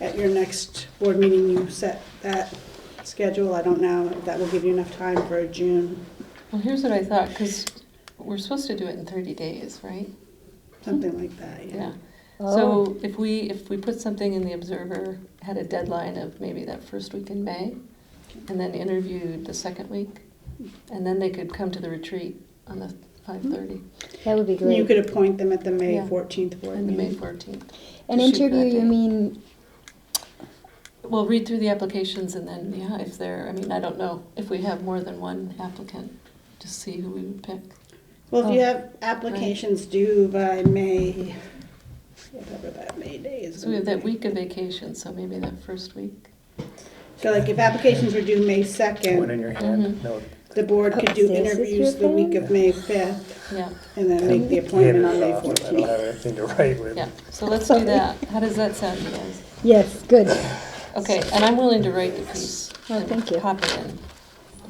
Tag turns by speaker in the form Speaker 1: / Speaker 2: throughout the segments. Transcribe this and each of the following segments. Speaker 1: at your next board meeting, you set that schedule. I don't know if that will give you enough time for June,
Speaker 2: Well, here's what I thought, because we're supposed to do it in thirty days, right?
Speaker 1: something like that, yeah.
Speaker 2: Yeah.
Speaker 3: Oh.
Speaker 2: So if we, if we put something in the Observer, had a deadline of maybe that first week in May, and then interviewed the second week, and then they could come to the retreat on the five thirty
Speaker 3: That would be
Speaker 1: You
Speaker 3: great.
Speaker 1: could appoint them at the May
Speaker 2: Yeah.
Speaker 1: 14th board
Speaker 2: and the May
Speaker 1: meeting.
Speaker 2: fourteenth.
Speaker 3: An
Speaker 2: shoot
Speaker 3: interview,
Speaker 2: that
Speaker 3: you
Speaker 2: day.
Speaker 3: mean?
Speaker 2: We'll read through the applications and then, yeah, if there, I mean, I don't know if we have more than one applicant, to see who we would pick.
Speaker 1: Well, if you
Speaker 3: Oh.
Speaker 1: have applications due by May, whatever that May day is.
Speaker 2: So we have that
Speaker 1: gonna be.
Speaker 2: week of vacation, so maybe that first week.
Speaker 1: So like if applications were due May
Speaker 4: One
Speaker 1: 2nd,
Speaker 4: in your hand,
Speaker 2: Mhm.
Speaker 4: no,
Speaker 1: the board could do
Speaker 3: Upstairs is
Speaker 1: interviews
Speaker 3: your
Speaker 1: the week
Speaker 3: phone?
Speaker 1: of May 5th
Speaker 2: Yeah,
Speaker 1: and then make the
Speaker 4: hand
Speaker 1: appointment on
Speaker 4: it
Speaker 1: May
Speaker 4: off, I don't
Speaker 1: 14th.
Speaker 4: have anything to write with.
Speaker 2: yeah. So let's do that. How does that sound, you guys?
Speaker 3: Yes, good.
Speaker 2: Okay, and I'm willing to write the piece.
Speaker 3: Oh,
Speaker 2: and
Speaker 3: thank you.
Speaker 2: Pop it in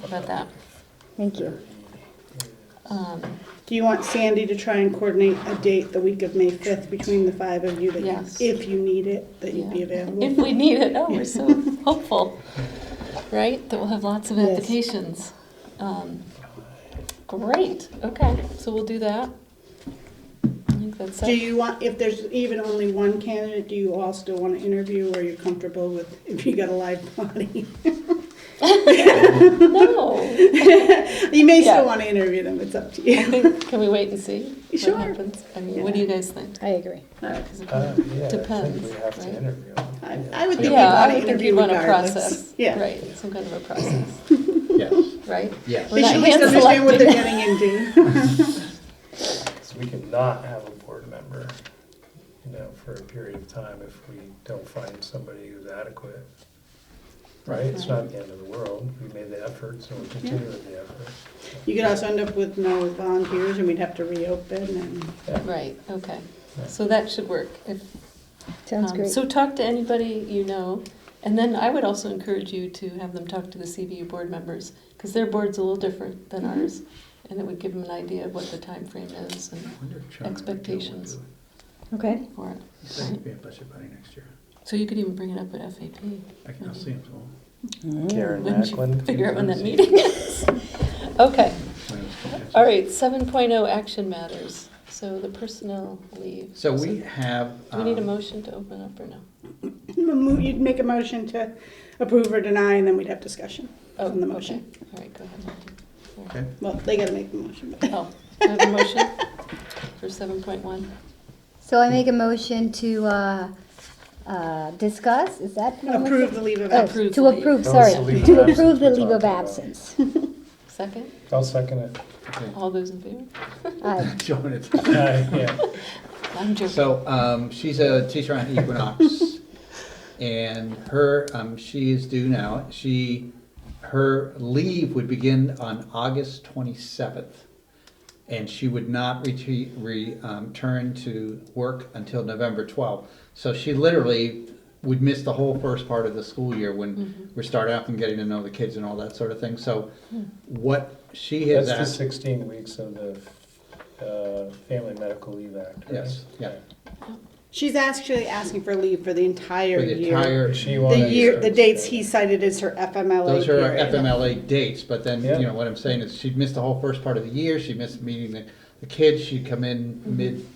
Speaker 2: about that.
Speaker 3: Thank you.
Speaker 2: Um,
Speaker 1: Do you want Sandy to try and coordinate a date the week of May 5th between the five of you that, you-
Speaker 2: Yes.
Speaker 1: if you need it, that you'd be
Speaker 2: yeah.
Speaker 1: available?
Speaker 2: If we need it, oh, we're so hopeful, right? That we'll have lots of
Speaker 3: Yes.
Speaker 2: applications. Um, Great, okay, so we'll do that. I think that's
Speaker 1: Do
Speaker 2: it.
Speaker 1: you want, if there's even only one candidate, do you all still want to interview or are you comfortable with, if you got a live body?
Speaker 2: No, I
Speaker 1: You may
Speaker 2: Yeah.
Speaker 1: still want to interview them, it's up to you.
Speaker 2: think, can we wait and see
Speaker 1: Sure.
Speaker 2: what happens? I mean, what do you guys think?
Speaker 3: I agree.
Speaker 1: I,
Speaker 2: 'Cause it
Speaker 4: Uh, yeah, I think
Speaker 2: Depends,
Speaker 4: we have
Speaker 2: right?
Speaker 4: to interview.
Speaker 1: I would think you'd
Speaker 2: Yeah, I
Speaker 1: want to
Speaker 2: would think
Speaker 1: interview
Speaker 2: you'd want a
Speaker 1: regardless.
Speaker 2: process,
Speaker 1: Yeah.
Speaker 2: right, some kind of a process,
Speaker 5: Yes,
Speaker 2: right?
Speaker 5: yes.
Speaker 1: They
Speaker 2: We're
Speaker 1: should at
Speaker 2: not
Speaker 1: least understand what they're
Speaker 2: hand-selecting.
Speaker 1: getting into.
Speaker 4: So we cannot have a board member, you know, for a period of time if we don't find somebody who's adequate. Right? It's not the end of the world. We made the effort, so we'll continue with the effort.
Speaker 1: You could also end up with no volunteers and we'd have to reopen and,
Speaker 2: Right, okay.
Speaker 4: Yeah.
Speaker 2: So that should work. If,
Speaker 3: Sounds
Speaker 2: um,
Speaker 3: great.
Speaker 2: So talk to anybody you know, and then I would also encourage you to have them talk to the CVU board members, because their board's a little different than
Speaker 1: Mm-hmm.
Speaker 2: ours, and it would give them an idea of what the time frame is and expectations
Speaker 3: Okay.
Speaker 2: for it.
Speaker 5: He's going to be a budget buddy next year.
Speaker 2: So you could even bring it up at FAP.
Speaker 5: I can, I'll see him tomorrow.
Speaker 4: Karen
Speaker 2: Wouldn't you
Speaker 4: Macklin.
Speaker 2: figure out when that meeting is? Okay,
Speaker 5: When it's budget.
Speaker 2: all right, seven oh action matters, so the personnel leave.
Speaker 5: So we have.
Speaker 2: Do we need a
Speaker 5: um,
Speaker 2: motion to open up or no?
Speaker 1: you'd make a motion to approve or deny and then we'd have discussion
Speaker 2: Oh,
Speaker 1: on the
Speaker 2: okay.
Speaker 1: motion.
Speaker 2: All right, go ahead. Monty.
Speaker 5: Okay,
Speaker 1: Well, they gotta make the motion, but.
Speaker 2: Oh, I have a motion for seven point one.
Speaker 3: So I make a motion to uh, uh, discuss, is that? what I'm
Speaker 1: Approve
Speaker 3: saying?
Speaker 1: the leave of
Speaker 3: Oh,
Speaker 1: absence.
Speaker 2: Approve
Speaker 3: To
Speaker 2: the leave.
Speaker 3: approve,
Speaker 4: That was
Speaker 3: sorry,
Speaker 4: the leave
Speaker 3: to
Speaker 4: of absence
Speaker 3: approve the
Speaker 4: we
Speaker 3: leave of
Speaker 4: talked about.
Speaker 3: absence.
Speaker 2: Second,
Speaker 4: I'll second it.
Speaker 5: okay.
Speaker 2: all those in favor?
Speaker 3: Aye.
Speaker 5: Joan, it's.
Speaker 4: Aye, yeah.
Speaker 2: I'm joking.
Speaker 5: So um, she's a teacher on Equinox, and her um, she is due now. She her leave would begin on August twenty seventh, and she would not retreat, re, um, return to work until November twelfth. So she literally would miss the whole first part of the school year when we're starting up and getting to know the kids and all that sort of thing. So what she has
Speaker 4: That's the
Speaker 5: asked,
Speaker 4: sixteen weeks of the, uh, Family Medical Leave Act, right?
Speaker 5: yes, yeah,
Speaker 1: She's actually asking for leave for the entire
Speaker 5: for the
Speaker 1: year.
Speaker 5: entire
Speaker 4: She
Speaker 1: The
Speaker 4: wanted.
Speaker 1: year, the dates he cited is her FMLA
Speaker 5: Those are our
Speaker 1: period.
Speaker 5: FMLA dates, but then,
Speaker 4: Yeah.
Speaker 5: you know, what I'm saying is she'd missed the whole first part of the year, she missed meeting the, the kids, she'd come in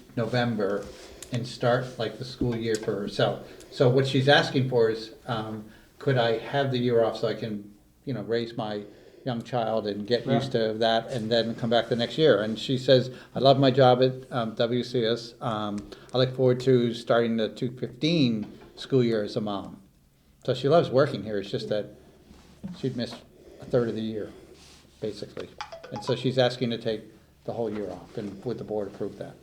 Speaker 5: mid-November and start like the school year for herself. So what she's asking for is, um, could I have the year off so I can, you know, raise my young child and get used to that and then come back the next year? And she says, I love my job at, um, WCS, um, I look forward to starting the two fifteen school year as a mom. So she loves working here, it's just that she'd missed a third of the year, basically. And so she's asking to take the whole year off, and would the board approve that?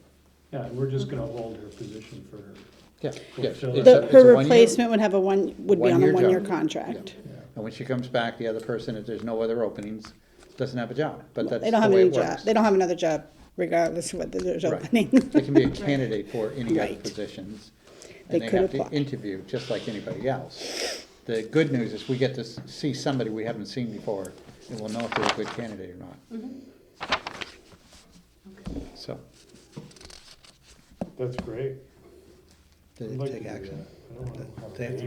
Speaker 6: Yeah, we're just gonna hold her position for her.
Speaker 5: Yeah, yeah. it's a-
Speaker 6: The-
Speaker 5: it's a
Speaker 1: The, her
Speaker 5: one-year-
Speaker 1: replacement would have a one, would be on a
Speaker 5: One-year
Speaker 1: one-year
Speaker 5: job.
Speaker 1: contract.
Speaker 5: And when she comes back, the other person, if there's no other openings, doesn't have a job, but that's
Speaker 1: They
Speaker 5: the
Speaker 1: don't have
Speaker 5: way
Speaker 1: any
Speaker 5: it
Speaker 1: job,
Speaker 5: works.
Speaker 1: they don't have another job regardless of whether there's
Speaker 5: Right.
Speaker 1: opening.
Speaker 5: They can be a candidate for any other
Speaker 1: Right.
Speaker 5: positions,
Speaker 1: They
Speaker 5: and they
Speaker 1: could
Speaker 5: have to
Speaker 1: apply.
Speaker 5: interview, just like anybody else. The good news is we get to s- see somebody we haven't seen before, and we'll know if they're a good candidate or not.
Speaker 2: Mm-hmm.
Speaker 5: So,
Speaker 6: That's great.
Speaker 5: did
Speaker 6: I'd
Speaker 5: it
Speaker 6: like
Speaker 5: take
Speaker 6: to do
Speaker 5: action?
Speaker 6: that. I don't wanna have
Speaker 5: They have to
Speaker 6: a-